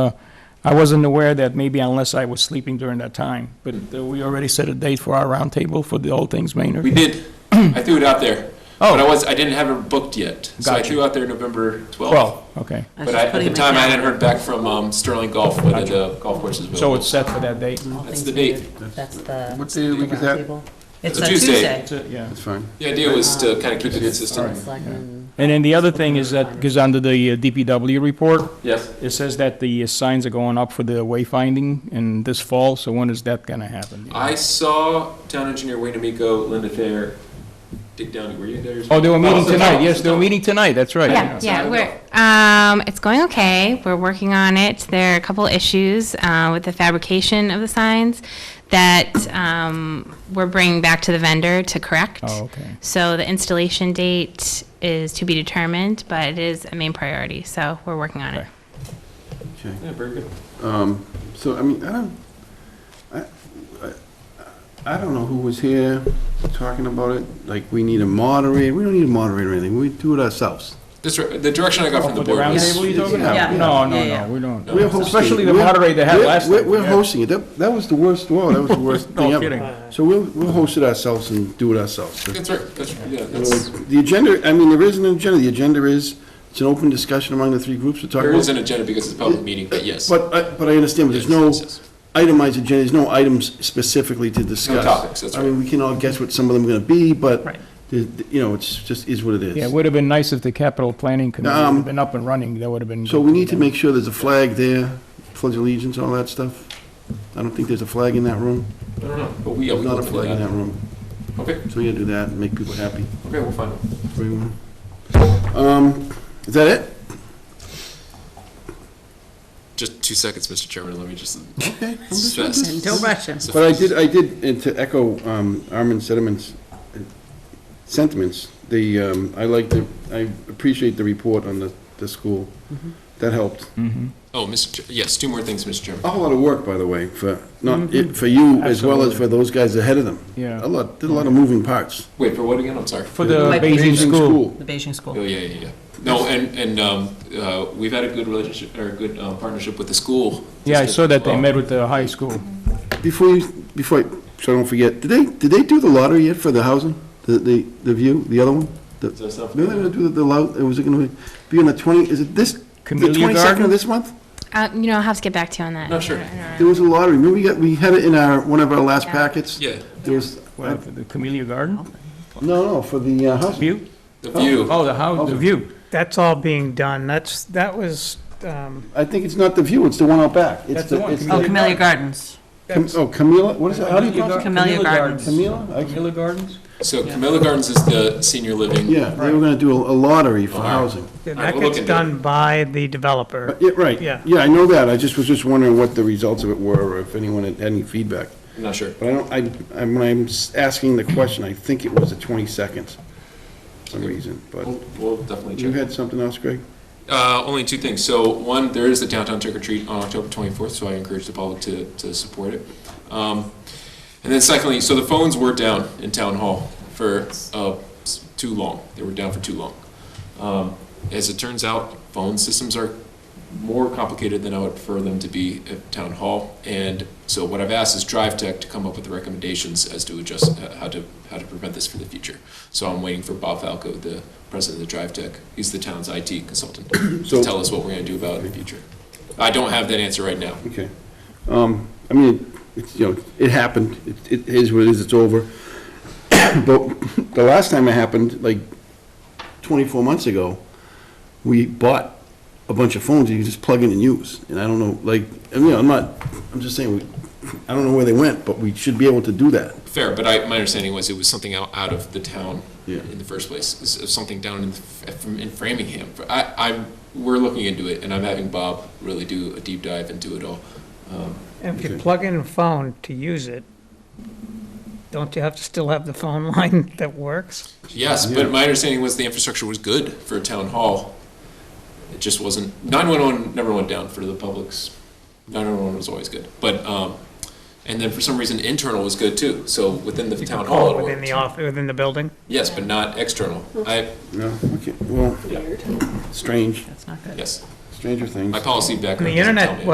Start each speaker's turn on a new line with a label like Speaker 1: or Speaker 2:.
Speaker 1: uh, I wasn't aware that maybe unless I was sleeping during that time, but uh, we already set a date for our roundtable for the All Things
Speaker 2: We
Speaker 1: Maynard.
Speaker 2: did. I threw it out there. But I
Speaker 1: Oh.
Speaker 2: was, I didn't have it booked yet. So I
Speaker 1: Gotcha.
Speaker 2: threw out there November 12th.
Speaker 1: Well, okay,
Speaker 3: I was
Speaker 2: But
Speaker 3: just
Speaker 2: I- at
Speaker 3: putting
Speaker 2: the
Speaker 3: my
Speaker 2: time, I hadn't
Speaker 3: calendar.
Speaker 2: heard back from um, Sterling Golf whether the golf course is
Speaker 1: so
Speaker 2: available.
Speaker 1: it's set for that date.
Speaker 3: All
Speaker 2: That's
Speaker 3: things
Speaker 2: the date.
Speaker 3: considered. That's the.
Speaker 4: What day of the week is that?
Speaker 3: roundtable. It's
Speaker 2: a
Speaker 3: a
Speaker 2: Tuesday.
Speaker 3: Tuesday.
Speaker 1: That's it, Yeah.
Speaker 4: That's fine.
Speaker 2: The idea was to kind of keep it
Speaker 3: Board of
Speaker 2: consistent.
Speaker 3: Selectmen.
Speaker 1: And then the other thing is that, because under the uh, DPW report,
Speaker 2: Yes.
Speaker 1: it says that the uh, signs are going up for the wayfinding in this fall, so when is that gonna happen?
Speaker 2: I saw town engineer Wayne Amico, Linda Thayer, Dick Downey. Were you there?
Speaker 1: Oh, they were meeting
Speaker 2: Also,
Speaker 1: tonight,
Speaker 2: Tom-
Speaker 1: yes, they were meeting tonight, that's right.
Speaker 5: Yeah,
Speaker 2: I
Speaker 5: yeah,
Speaker 2: don't
Speaker 5: we're, um, it's going okay. We're working on it. There are a couple issues, uh, with the fabrication of the signs that, um, we're bringing back to the vendor to correct.
Speaker 1: Oh, okay.
Speaker 5: So the installation date is to be determined, but it is a main priority, so we're working on it.
Speaker 1: Okay.
Speaker 4: Okay.
Speaker 2: Yeah, very good.
Speaker 4: Um, So, I mean, I don't, I, I- I don't know who was here talking about it, like, we need a moderator, we don't need a moderator or anything, we do it ourselves.
Speaker 2: This, the direction I got from
Speaker 1: For
Speaker 2: the
Speaker 1: Oh, the
Speaker 2: board was.
Speaker 1: roundtable, you talking
Speaker 4: Yeah.
Speaker 1: about? No, no,
Speaker 3: Yeah, yeah.
Speaker 1: no, we don't.
Speaker 2: No. We're
Speaker 4: hosting
Speaker 1: Especially
Speaker 4: it.
Speaker 1: the
Speaker 4: We're-
Speaker 1: moderator they had
Speaker 4: we're-
Speaker 1: last
Speaker 4: we're-
Speaker 1: time,
Speaker 4: We're
Speaker 1: yeah.
Speaker 4: hosting it, that, that was the worst, whoa, that was the worst
Speaker 1: No
Speaker 4: thing ever.
Speaker 1: kidding.
Speaker 4: So we'll, we'll host it ourselves and do it ourselves.
Speaker 2: That's right, that's, yeah, that's,
Speaker 4: The agenda, I mean, there isn't an agenda, the agenda is, it's an open discussion among the three groups, we're talking
Speaker 2: there
Speaker 4: about.
Speaker 2: is an agenda because it's a public meeting, but yes.
Speaker 4: But, I- but I understand, but there's no
Speaker 2: Yes, yes, yes.
Speaker 4: itemized agenda, there's no items specifically to discuss.
Speaker 2: topics, that's
Speaker 4: I mean, we can all guess what some of them are gonna be, but,
Speaker 3: Right.
Speaker 4: the- the- you know, it's just, is what it
Speaker 1: Yeah, it
Speaker 4: is.
Speaker 1: would have been nice if the capital planning committee
Speaker 4: Um,
Speaker 1: had been up and running, that would have been.
Speaker 4: So
Speaker 1: good
Speaker 4: we
Speaker 1: for
Speaker 4: need to
Speaker 1: them.
Speaker 4: make sure there's a flag there, pledge allegiance, all that stuff. I don't think there's a flag in that room.
Speaker 2: I don't know, but we, yeah, we
Speaker 4: There's not a
Speaker 2: looked into
Speaker 4: flag in that
Speaker 2: that.
Speaker 4: room.
Speaker 2: Okay,
Speaker 4: So we gotta do that and make people happy.
Speaker 2: okay, we'll find out.
Speaker 4: for everyone. Um, is that it?
Speaker 2: Just two seconds, Mr. Chairman, let me just.
Speaker 4: Okay.
Speaker 2: It's fast.
Speaker 3: And Don't rush him.
Speaker 2: It's a
Speaker 4: But I
Speaker 2: fast-
Speaker 4: did, I did, and to echo um, Armin Sediment's sentiments, the, um, I like the, I appreciate the report on the, the school. That helped.
Speaker 2: Oh, Mr., Ch- yes, two more things, Mr. Chairman.
Speaker 4: A whole lot of work, by the way, for, not, it- for you as well as for those guys ahead of them.
Speaker 1: Mm-hmm. Yeah.
Speaker 4: A lot, did a lot of moving parts.
Speaker 2: Wait, for what again? I'm sorry.
Speaker 1: For the
Speaker 3: Like
Speaker 1: Beijing school.
Speaker 3: The Beijing
Speaker 2: Oh,
Speaker 3: school.
Speaker 2: yeah, yeah, yeah. No, and, and, um, uh, we've had a good relationship, or a good, um, partnership with the school.
Speaker 1: Yeah, I saw that they
Speaker 2: Well,
Speaker 1: met with the high school.
Speaker 4: Before you, before, I so I don't forget, did they, did they do the lottery yet for the housing? The, the, the view, the other one?
Speaker 2: is there stuff-
Speaker 4: No, they were gonna do the, lo- it was gonna be on the twenty, is it this, the
Speaker 1: Camellia
Speaker 4: twenty-second
Speaker 1: Garden?
Speaker 4: of this month?
Speaker 5: Uh, you know, I'll have to get back to you on that.
Speaker 2: No, sure.
Speaker 5: I don't- I don't know.
Speaker 4: There was a lottery, remember we got, we had it in our, one of our last
Speaker 5: Yeah.
Speaker 4: packets?
Speaker 2: Yeah,
Speaker 4: There was,
Speaker 1: Well,
Speaker 4: no,
Speaker 1: for the Camellia Garden?
Speaker 4: no, for the uh, house.
Speaker 1: View?
Speaker 2: the view.
Speaker 1: Oh, the how, the view.
Speaker 6: That's all being done. That's, that was, um,
Speaker 4: I think it's not the view, it's the one out back. It's
Speaker 1: That's the one,
Speaker 4: it's
Speaker 3: Oh, Camellia Gardens.
Speaker 4: Cam- Oh, Camila, what is it, how do you pronounce it?
Speaker 3: Camellia Gardens.
Speaker 4: Camila? I-
Speaker 1: Camellia Gardens?
Speaker 2: So Camilla Gardens is the senior living.
Speaker 4: Yeah, they were gonna do a a lottery for
Speaker 2: Alright.
Speaker 4: housing.
Speaker 6: that
Speaker 2: right, we'll look
Speaker 6: gets
Speaker 2: into it.
Speaker 6: done by the developer.
Speaker 4: Uh, Yeah, right.
Speaker 6: Yeah.
Speaker 4: Yeah, I know that, I just was just wondering what the results of it were, or if anyone had any feedback.
Speaker 2: I'm not sure.
Speaker 4: But I don't, I, I'm- when I'm s- asking the question, I think it was the twenty-second, for some reason, but.
Speaker 2: We'll we'll definitely check.
Speaker 4: You had something else, Greg?
Speaker 2: Uh, only two things. So one, there is the downtown trick or treat on October 24th, so I encourage the public to, to support it. Um, and then secondly, so the phones were down in town hall for uh, s- too long. They were down for too long. Um, as it turns out, phone systems are more complicated than I would prefer them to be at town hall. And so what I've asked is Drive Tech to come up with the recommendations as to adjust uh, how to how to prevent this for the future. So I'm waiting for Bob Falco, the president of the Drive Tech, he's the town's IT consultant, to
Speaker 4: So-
Speaker 2: tell us what we're going to do about it in the future. I don't have that answer right now.
Speaker 4: Okay. Um, I mean, it's, you know, it happened. It- It is what it is, it's over. But the last time it happened, like 24 months ago, we bought a bunch of phones that you just plug in and use. And I don't know, like, I mean, I'm not, I'm just saying, we I don't know where they went, but we should be able to do that.
Speaker 2: Fair, but I, my understanding was it was something out, out of the town
Speaker 4: Yeah.
Speaker 2: in the first place, It's- it's something down in, the- from- in Framingham. I, I'm, we're looking into it, and I'm having Bob really do a deep dive into it all. Um,
Speaker 6: And if you
Speaker 4: Okay.
Speaker 6: plug in a phone to use it, don't you have to still have the phone line that works?
Speaker 2: Yes,
Speaker 4: Yeah.
Speaker 2: but my understanding was the infrastructure was good for a town hall. It just wasn't, 911 never went down for the public's, 911 was always good. But, um, and then for some reason, internal was good too, so within the
Speaker 6: You
Speaker 2: town hall
Speaker 6: can call
Speaker 2: it
Speaker 6: Within the
Speaker 2: worked.
Speaker 6: off, within the building?
Speaker 2: Yes, but not external. I,
Speaker 4: No? Okay, well, strange,
Speaker 3: That's not good.
Speaker 2: yes,
Speaker 4: stranger things.
Speaker 2: my policy
Speaker 6: And
Speaker 2: background
Speaker 6: the
Speaker 2: doesn't tell me.
Speaker 6: internet